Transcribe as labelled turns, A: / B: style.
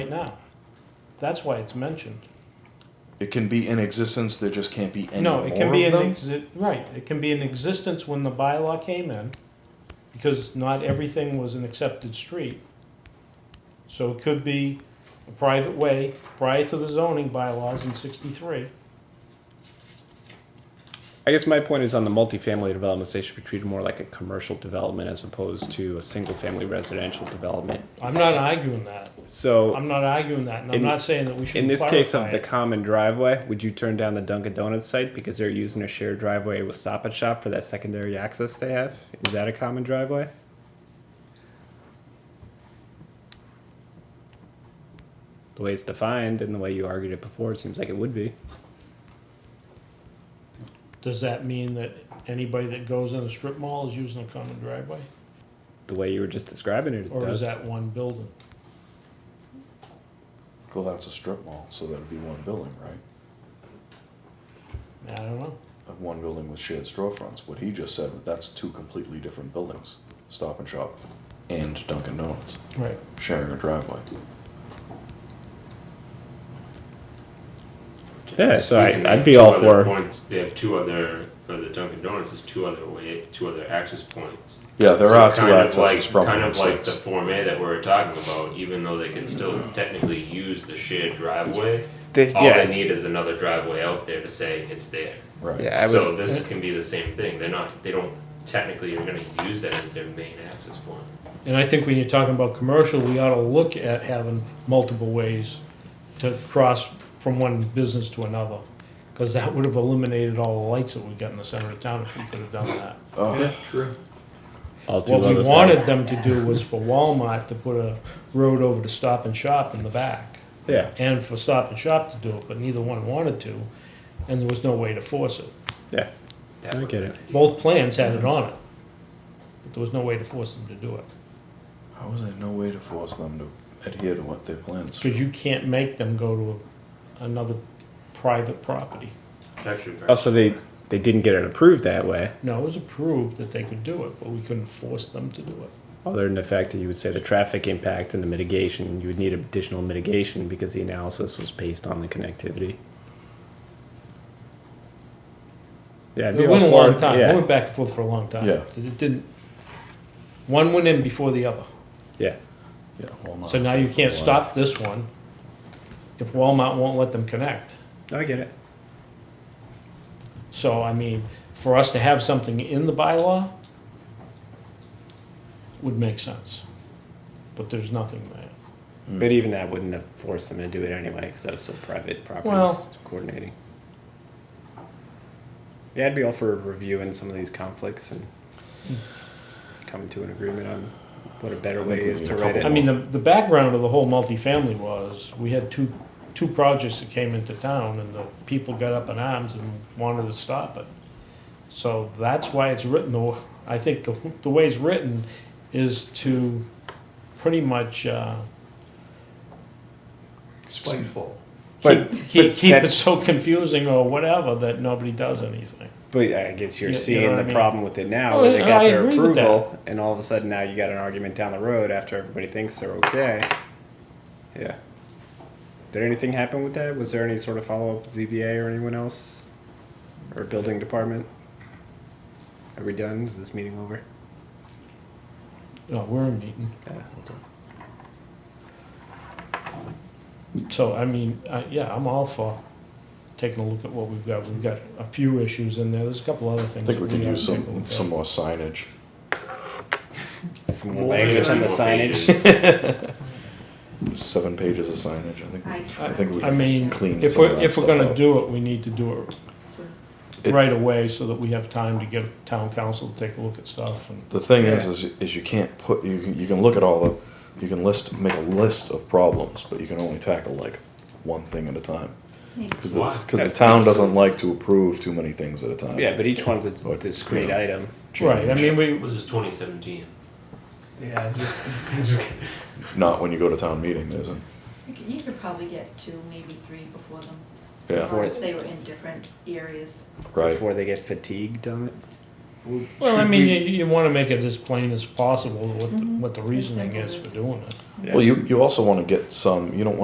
A: now. That's why it's mentioned.
B: It can be in existence, there just can't be any
A: No, it can
B: more
A: be
B: of
A: an
B: them?
A: exi- right, it can be in existence when the bylaw came in, because not everything was an accepted street. So it could be a private way prior to the zoning bylaws in sixty-three.
C: I guess my point is on the multifamily developments, they should be treated more like a commercial development as opposed to a single-family residential development.
A: I'm not arguing that.
C: So,
A: I'm not arguing that, and I'm
C: In-
A: not saying that we should
C: in this case of
A: clarify
C: the
A: it.
C: common driveway, would you turn down the Dunkin' Donuts site because they're using a shared driveway with Stop and Shop for that secondary access they have? Is that a common driveway? The way it's defined and the way you argued it before, it seems like it would be.
A: Does that mean that anybody that goes in a strip mall is using a common driveway?
C: The way you were just describing it, it
A: Or is
C: does.
A: that one building?
B: Well, that's a strip mall, so that'd be one building, right?
A: I don't know.
B: Uh, One building with shared storefronts. What he just said, that's two completely different buildings. Stop and Shop and Dunkin' Donuts,
A: Right.
B: sharing a driveway.
C: Yeah, so I-
D: Speaking
C: I'd
D: of
C: be
D: two
C: all for-
D: other points, They have two other, for the Dunkin' Donuts, is two other way, two other access points.
B: Yeah, there
D: So
B: are two
D: kind of
B: accesses
D: like-
B: from
D: Kind
B: Route
D: of like the
B: Six.
D: Form A that we were talking about, even though they can still technically use the shared driveway,
C: They-
D: all they
C: Oh, yeah.
D: need is another driveway out there to say it's there.
B: Right.
C: Yeah, I would.
D: So this can be the same thing, they're not, they don't, technically are gonna use that as their main access point.
A: And I think when you're talking about commercial, we ought to look at having multiple ways to cross from one business to another. Because that would have eliminated all the lights that we got in the center of town if we could have done that.
B: Oh,
C: All two
A: What we
C: other
A: wanted
C: sides.
A: them to do was for Walmart to put a road over to Stop and Shop in the back.
C: Yeah.
A: And for Stop and Shop to do it, but neither one wanted to, and there was no way to force it.
C: Yeah.
D: That
C: I
D: would
C: get
D: be
C: it.
D: ideal.
A: Both plans had it on it, but there was no way to force them to do it.
B: how was there no way to force them to adhere to what their plans?
A: Because you can't make them go to another private property.
D: It's actually very-
C: Also, they they didn't get it approved that way.
A: No, it was approved that they could do it, but we couldn't force them to do it.
C: Other than the fact that you would say the traffic impact and the mitigation, you would need additional mitigation because the analysis was based on the connectivity. Yeah, it'd be
A: It
C: all
A: went a
C: for
A: long
C: it,
A: time, it
C: Yeah,
A: went back and forth for a long time.
B: Yeah.
A: It didn't, one went in before the other.
C: yeah.
B: Yeah, Walmart
A: So
B: was
A: now
B: there
A: you
B: for Oh, a
A: can't
B: while.
A: stop this one if Walmart won't let them connect.
C: I get it.
A: So, I mean, for us to have something in the bylaw would make sense. But there's nothing there.
C: But even that wouldn't have forced them to do it anyway because that was still private properties
A: Well-
C: coordinating. Yeah, I'd be all for reviewing some of these conflicts and coming to an agreement on what a better
B: I think
C: way
B: we
C: is
B: need
C: to
B: a
C: write
B: couple
C: it.
A: I mean, the, the background of the whole multifamily was, we had two, two projects that came into town and the people got up in arms and wanted to stop it. So that's why it's written, the, I think the, the way it's written is to pretty much, uh,
E: spiteful.
A: keep,
C: But-
A: keep,
C: but
A: keep
C: that-
A: it so confusing or whatever that nobody does anything.
C: But I guess you're
A: You- you know
C: seeing
A: what
C: the
A: I mean?
C: problem with it now,
A: Oh,
C: where they
A: yeah,
C: got
A: I
C: their
A: agree with
C: approval, and all of a sudden now you got an argument down the road after everybody thinks they're okay. Yeah. Did anything happen with that? Was there any sort of follow up with ZBA or anyone else, or building department? Are we done? Is this meeting over?
A: No, Oh, we're in meeting.
C: Yeah.
A: So, I mean, uh, yeah, I'm all for taking a look at what we've got. We've got a few issues in there. There's a couple other
B: I
A: things.
B: think we
A: that
B: can
A: ought
B: use
A: to take a look
B: some,
A: at.
B: some more signage.
C: Some more
E: Well,
C: language
E: there's
C: on the
D: More pages.
C: signage.
B: Seven pages of signage, I think. we- I think we
A: I mean,
B: can clean
A: If
B: some of
A: we're,
B: that
A: if we're
B: stuff
A: gonna
B: up.
A: do it, we need to do it
B: It-
A: right away so that we have time to get town council to take a look at stuff and,
B: The thing is,
C: Yeah.
B: is, is you can't put you can, you can look at all the you can list make a list of problems, but you can only tackle like one thing at a time because
D: Why?
B: the town doesn't like to approve too many things at a time.
C: Yeah, but each one's a discrete item.
A: right, I mean, we,
D: This is twenty seventeen.
E: Yeah, just
B: Not when you go to town meeting, there isn't.
F: You could, you could probably get two, maybe three before them.
B: Yeah,
F: as long as they were in different areas.
B: right.
C: Before they get fatigued on it.
A: well, I
E: should
A: mean,
E: we-
A: you, you wanna make it as plain as possible what, the-
F: Mhm.
A: what the reasoning is for doing it.
C: Yeah.
B: Well, you you also want to get some. You don't want